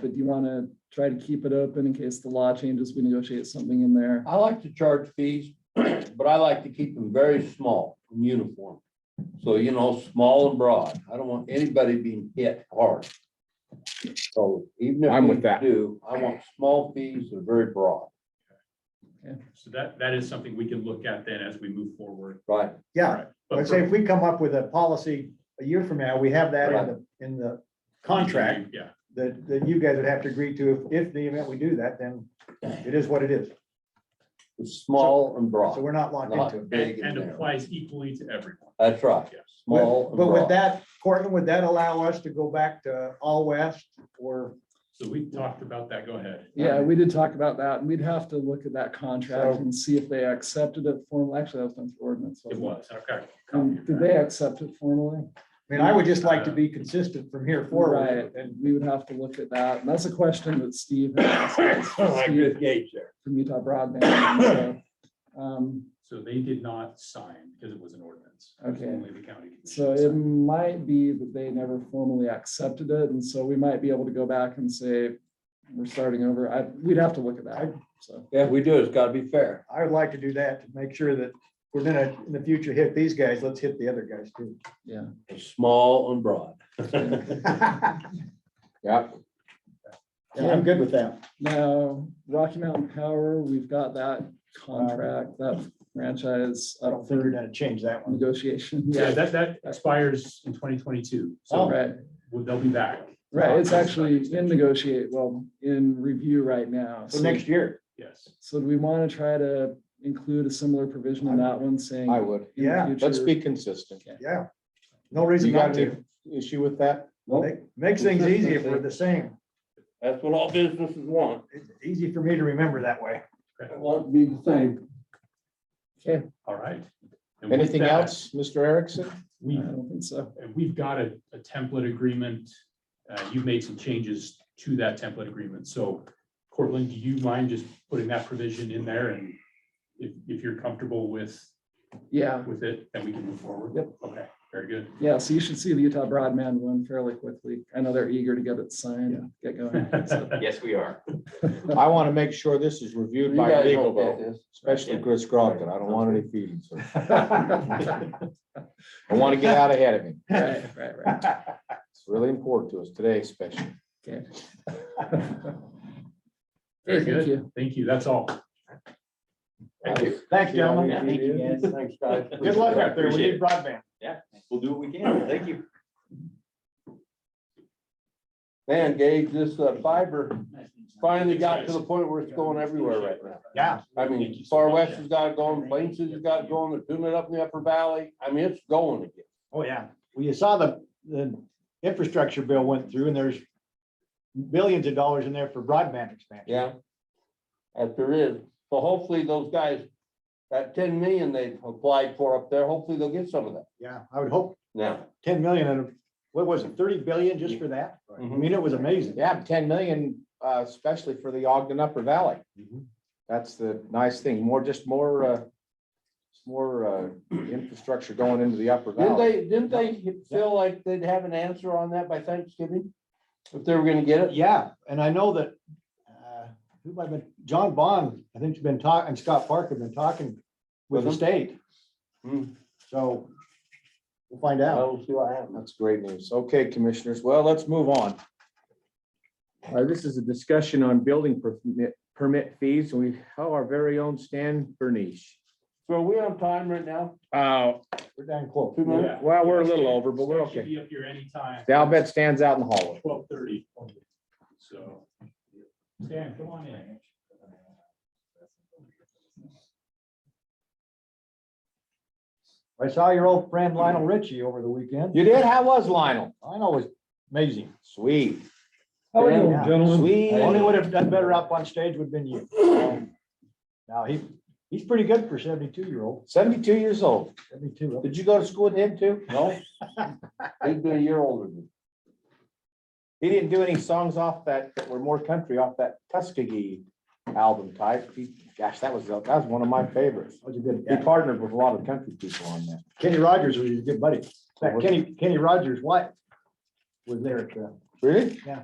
But do you want to try to keep it open in case the law changes, we negotiate something in there? I like to charge fees, but I like to keep them very small and uniform. So, you know, small and broad. I don't want anybody being hit hard. So even I'm with if that. we do, I want small fees that are very broad, So that, that is something we can look at then as we move forward. right? Yeah, But I'd say for- if we come up with a policy a year from now, we have that in the, in the contract Yeah, that, that you guys would have to agree to. If, if the event we do that, then it is what it is. It's small and So broad, we're not locked not into it. big and, and and narrow. applies equally to everyone. That's right, Yes. small and But with broad. that, Cortland, would that allow us to go back to all west or, So we talked about that. Go ahead. Yeah, we did talk about that and we'd have to look at that contract and see if they accepted it formally. Actually, that was done through ordinance. It wasn't was, okay. Um, Did they accept it formally? I mean, I would just like to be consistent from here forward. Right. And We would have to look at that. And that's a question that Steve had asked Oh, us, Steve Gage there. from Utah Broadband. and so, um, So they did not sign because it was an ordinance. It was Okay. Only the county. commission So it signed. might be that they never formally accepted it, and so we might be able to go back and say, we're starting over. I, we'd have to look at that, so. Yeah, we do. It's gotta be fair. I would like to do that to make sure that we're gonna, in the future, hit these guys, let's hit the other guys too. It's small and broad. Yeah, Yeah, I'm good with that. Now, Rocky Mountain Power, we've got that contract, that franchise I don't up think we're for gonna change that one. negotiation. Yeah, that, that expires in twenty twenty-two. So, So Right, we'll- they'll be back. right. It's actually in negotiate, well, in review right now. So next year, Yes. So do we want to try to include a similar provision in that one saying? I would. in the Yeah, Let's future- be consistent. yeah. No reason You not got to. an issue with that? Make- Makes things easy if we're the same. That's what all businesses want. It's easy for me to remember that way. Want to be the same. All right. And with Anything that, else, Mr. Erickson? I We, don't think so. and Uh, we've got a, a template agreement. Uh, you've made some changes to that template agreement. So Cortland, do you mind just putting that provision in there? And if, if you're comfortable with, Yeah. with it, then we can move forward. Yep. Okay, very good. Yeah, so you should see the Utah Broadman one fairly quickly. I know they're eager to get it signed, get going. so. Yes, we are. I want to make sure this is reviewed You by guys legal don't get though, this. especially Chris Crockett. I don't want any feelings. hurt. Right, I want to get out ahead of him. right, right. It's really important to us today especially. Okay. Very Thank good. you. Thank you. That's all. Thank you. Thanks, gentlemen. Yeah, thank you, guys. Thanks, guys. Good luck out there. We Appreciate need it. broadband. Yeah, we'll do what we can. Thank you. Man, Gage, this uh, fiber finally got to the point where it's going everywhere right now. Yeah. I mean, Far West has got it going, Plain City's got it going, they're doing it up in the Upper Valley. I mean, it's going again. Oh, yeah. Well, you saw the, the infrastructure bill went through and there's billions of dollars in there for broadband expansion. Yeah. As there is. So hopefully those guys, that ten million they've applied for up there, hopefully they'll get some of that Yeah, I would hope now. ten million and what was it, thirty billion just for that? I Mhm. mean, it was amazing. Yeah, ten million, uh, especially for the Ogden Upper Valley. Mhm. That's the nice thing. More, just more, uh, more, uh, infrastructure going into the Upper Didn't Valley. they, didn't they feel like they'd have an answer on that by Thanksgiving? If they were gonna get it? Yeah, and I know that, uh, who might have been, John Bond, I think has been talking, and Scott Park have been talking with the Mhm. state. Hmm. So we'll find I out. don't see what happened. That's great news. Okay, commissioners. Well, let's move on. Uh, this is a discussion on building permit, permit fees. and We, have our very own Stan Bernish. So are we on time right now? Uh, We're down close. Two minutes? well, we're a little over, but we're Should okay. be up here anytime. I'll bet Stan's out in the hallway. Twelve thirty. So. Stan, come on in. I saw your old friend Lionel Richie over the weekend. You did? How was Lionel? Lionel was amazing. Sweet, How are you? Yeah. Only sweet. would have done better up on stage would have been you. Now, he, he's pretty good for seventy-two year old, Seventy-two years old. seventy-two. Did you go to school with him too? No? He's been a year older than me. He didn't do any songs off that, that were more country off that Tuskegee album type. He- Gosh, that was, that was one of my favorites. That was a good, He partnered with a lot of country people on that. Kenny Rogers was his good buddy. In fact, Kenny, Kenny Rogers' wife was there at the, Really? Yeah.